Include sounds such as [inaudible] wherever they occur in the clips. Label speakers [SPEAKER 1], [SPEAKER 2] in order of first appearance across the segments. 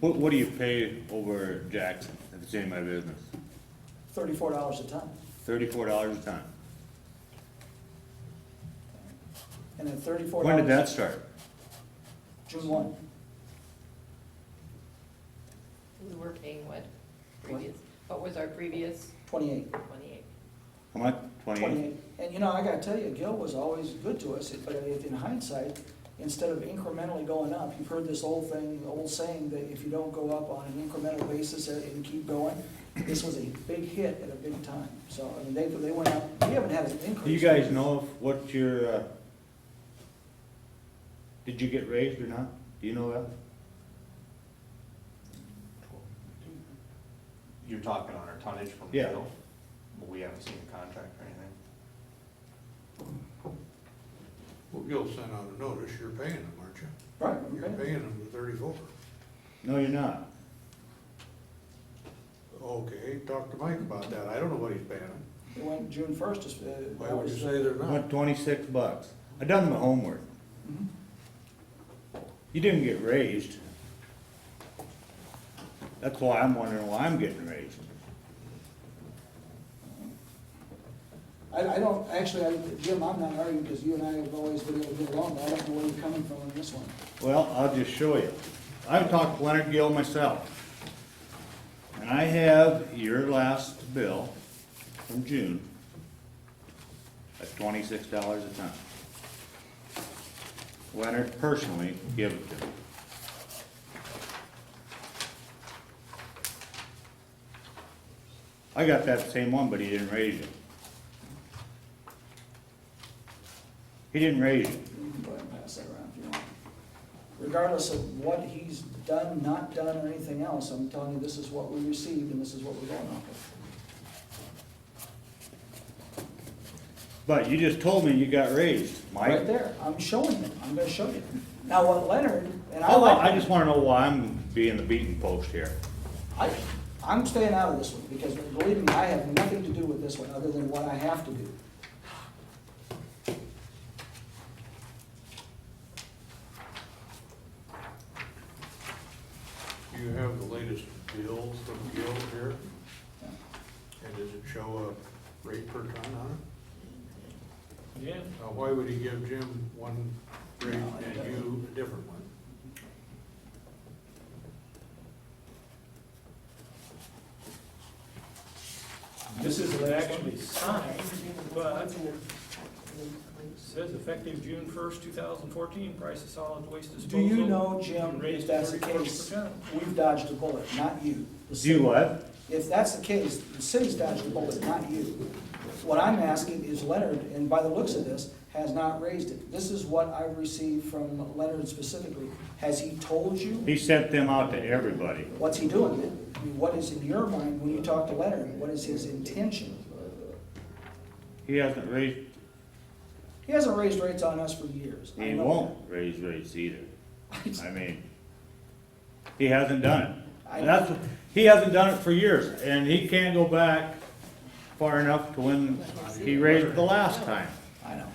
[SPEAKER 1] What, what do you pay over Jackson, if it's in my business?
[SPEAKER 2] thirty-four dollars a ton.
[SPEAKER 1] Thirty-four dollars a ton.
[SPEAKER 2] And then thirty-four
[SPEAKER 1] When did
[SPEAKER 2] dollars,
[SPEAKER 1] that start?
[SPEAKER 2] June one,
[SPEAKER 3] We were paying what previous, what was our previous
[SPEAKER 2] twenty-eight.
[SPEAKER 3] twenty-eight?
[SPEAKER 1] How much? Twenty-eight?
[SPEAKER 2] 28. And you know, I gotta tell you, Gil was always good to us, but if in hindsight, instead of incrementally going up, you've heard this old thing, old saying that if you don't go up on an incremental basis and keep going, this was a big hit at a big time. So, I mean, they, they went up, we haven't had an increase.
[SPEAKER 1] Do you guys know if what your, uh, did you get raised or not? Do you know that?
[SPEAKER 4] You're talking on our tonnage from
[SPEAKER 1] Yeah.
[SPEAKER 4] Bill? But we haven't seen a contract or anything.
[SPEAKER 5] Well, Gil sent out a notice, you're paying them, aren't you?
[SPEAKER 2] Right,
[SPEAKER 5] You're
[SPEAKER 2] okay.
[SPEAKER 5] paying them the thirty-four.
[SPEAKER 1] No, you're not.
[SPEAKER 5] Okay, talk to Mike about that, I don't know what he's paying them.
[SPEAKER 2] It went June first, is, uh,
[SPEAKER 5] Why
[SPEAKER 2] that
[SPEAKER 5] would
[SPEAKER 2] was-
[SPEAKER 5] you say they're
[SPEAKER 1] Went
[SPEAKER 5] not?
[SPEAKER 1] twenty-six bucks. I done my homework.
[SPEAKER 2] Mhm.
[SPEAKER 1] You didn't get raised. That's why I'm wondering why I'm getting raised.
[SPEAKER 2] uh, I, I don't, actually, I, Jim, I'm not arguing, because you and I have always been able to get along, but I don't know where you're coming from on this one.
[SPEAKER 1] Well, I'll just show you. I've talked to Leonard Gill myself. And I have your last bill from June at twenty-six dollars a ton. Leonard personally gave it to me. I got that same one, but he didn't raise it. He didn't raise it.
[SPEAKER 2] You can go ahead and pass that around if you want. Regardless of what he's done, not done, or anything else, I'm telling you, this is what we received and this is what we're going off of.
[SPEAKER 1] But you just told me you got raised,
[SPEAKER 2] Right
[SPEAKER 1] Mike.
[SPEAKER 2] there, I'm showing you, I'm gonna show you. Now, what Leonard, and I
[SPEAKER 1] Hold on, Oh, I
[SPEAKER 2] like,
[SPEAKER 1] just wanna know why I'm being the beaten post here.
[SPEAKER 2] I, I'm staying out of this one, because believe me, I have nothing to do with this one, other than what I have to do.
[SPEAKER 5] Do you have the latest bills from Gil here? And does it show a rate per ton on
[SPEAKER 6] Yeah,
[SPEAKER 5] it? Now, why would he give Jim one rate
[SPEAKER 2] No, I don't.
[SPEAKER 5] and you a different one?
[SPEAKER 6] this isn't actually signed, but it says effective June first, two thousand fourteen, price of solid waste
[SPEAKER 2] Do
[SPEAKER 6] disposal.
[SPEAKER 2] you know, Jim,
[SPEAKER 6] raised
[SPEAKER 2] if that's the
[SPEAKER 6] 31%.
[SPEAKER 2] case, we've dodged a bullet, not you. The
[SPEAKER 1] Do you
[SPEAKER 2] city.
[SPEAKER 1] what?
[SPEAKER 2] If that's the case, the city's dodged the bullet, not you. What I'm asking is Leonard, and by the looks of this, has not raised it. This is what I've received from Leonard specifically. Has he told you?
[SPEAKER 1] He sent them out to everybody.
[SPEAKER 2] What's he doing? I mean, what is in your mind when you talk to Leonard? What is his intention?
[SPEAKER 1] He hasn't raised,
[SPEAKER 2] He hasn't raised rates on us for years. I
[SPEAKER 1] he
[SPEAKER 2] know
[SPEAKER 1] won't raise rates
[SPEAKER 2] [laughs]
[SPEAKER 1] either.
[SPEAKER 2] that.
[SPEAKER 1] I mean, he hasn't done it.
[SPEAKER 2] I-
[SPEAKER 1] And that's, he hasn't done it for years, and he can't go back far enough to when he raised it the last time.
[SPEAKER 2] I know.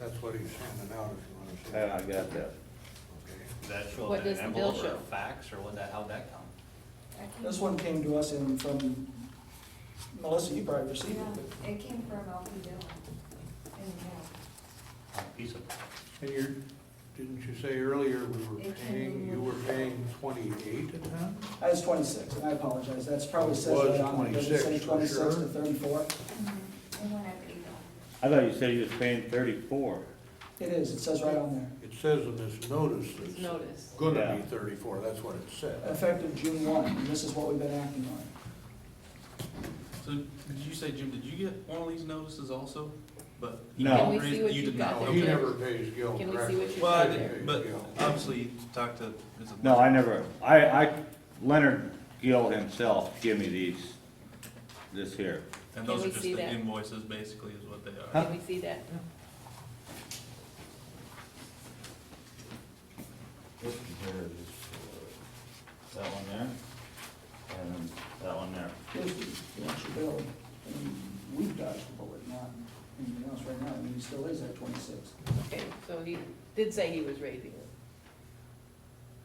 [SPEAKER 5] That's what he's handing out, if you
[SPEAKER 1] And
[SPEAKER 5] wanna
[SPEAKER 1] I got that.
[SPEAKER 5] see. Okay.
[SPEAKER 7] Does that show
[SPEAKER 3] What
[SPEAKER 7] up in
[SPEAKER 3] does
[SPEAKER 7] an
[SPEAKER 3] the bill
[SPEAKER 7] envelope or
[SPEAKER 3] show?
[SPEAKER 7] a fax, or what that, how'd that come?
[SPEAKER 2] This one came to us in from, Melissa, you probably received it, but
[SPEAKER 8] Yeah, it came from Alfie Dillon in the mail.
[SPEAKER 7] Piece of
[SPEAKER 5] And you're, didn't you say earlier we were
[SPEAKER 8] It can
[SPEAKER 5] paying,
[SPEAKER 8] be
[SPEAKER 5] you were
[SPEAKER 8] moved.
[SPEAKER 5] paying twenty-eight at that?
[SPEAKER 2] I was twenty-six, and I apologize, that's probably says right
[SPEAKER 5] Was
[SPEAKER 2] on, it does it say
[SPEAKER 5] 26 for
[SPEAKER 2] twenty-six to
[SPEAKER 5] sure?
[SPEAKER 2] thirty-four?
[SPEAKER 8] It went up eight dollars.
[SPEAKER 1] I thought you said he was paying thirty-four.
[SPEAKER 2] It is, it says right on there,
[SPEAKER 5] It says in this notice
[SPEAKER 3] It's
[SPEAKER 5] it's
[SPEAKER 3] notice.
[SPEAKER 5] gonna be
[SPEAKER 1] Yeah.
[SPEAKER 5] thirty-four, that's what it said.
[SPEAKER 2] effective June one, and this is what we've been acting on.
[SPEAKER 9] So, did you say, Jim, did you get one of these notices also? But. you
[SPEAKER 1] No.
[SPEAKER 3] Can we
[SPEAKER 9] raised-
[SPEAKER 3] see what
[SPEAKER 9] you
[SPEAKER 3] you
[SPEAKER 9] did
[SPEAKER 3] got
[SPEAKER 9] not.
[SPEAKER 5] No,
[SPEAKER 3] there,
[SPEAKER 5] he
[SPEAKER 3] Jim?
[SPEAKER 5] never pays Gil
[SPEAKER 3] Can we see
[SPEAKER 5] correctly.
[SPEAKER 3] what you
[SPEAKER 9] Well, I
[SPEAKER 3] got there?
[SPEAKER 9] did, but obviously you talked to, is it?
[SPEAKER 1] No, I never, I, I, Leonard Gill himself gave me these, this here.
[SPEAKER 9] And those
[SPEAKER 3] Can
[SPEAKER 9] are
[SPEAKER 3] we
[SPEAKER 9] just
[SPEAKER 3] see
[SPEAKER 9] the
[SPEAKER 3] that?
[SPEAKER 9] invoices, basically, is what they are.
[SPEAKER 1] Huh?
[SPEAKER 3] Can we see that?
[SPEAKER 7] This here is uh, that one there, and that one there.
[SPEAKER 2] This is the actual bill, and we've dodged the bullet, not anything else right now, I mean, he still is at twenty-six.
[SPEAKER 3] Okay, so he did say he was raising it.